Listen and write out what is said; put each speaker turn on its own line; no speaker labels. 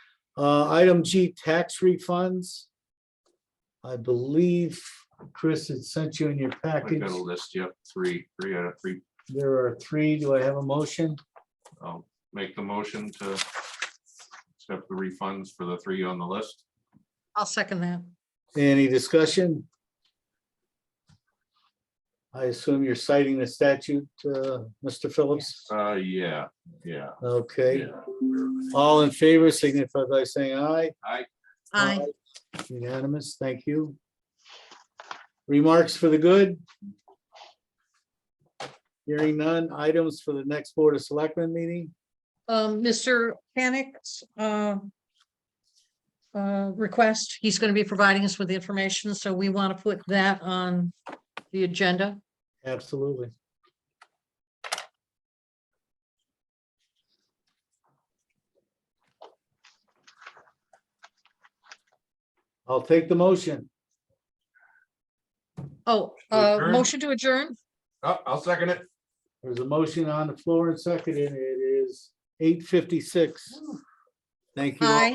Uh, item G, tax refunds. I believe, Chris, it sent you in your
I've
package.
got a list, yep, three, three out of three.
There are three. Do I have a motion?
I'll make the motion to accept the refunds for the three on the list.
I'll second that.
Any discussion? I assume you're citing the statute, uh, Mr. Phillips?
Uh, yeah, yeah,
Okay,
yeah.
all in favor signify by saying aye.
Aye.
Aye. Unanimous, thank you. Remarks for the good? Hearing none, items for the next Board of Selectmen meeting?
Um, Mr. Panic's, uh, uh, request, he's going to be providing us with the information, so we want to put that on the agenda.
Absolutely. I'll take the motion.
Oh, uh,
Adjourn.
motion to adjourn?
Oh, I'll second it.
There's a motion on the floor and seconded. It is eight fifty-six. Thank you. all.
Aye.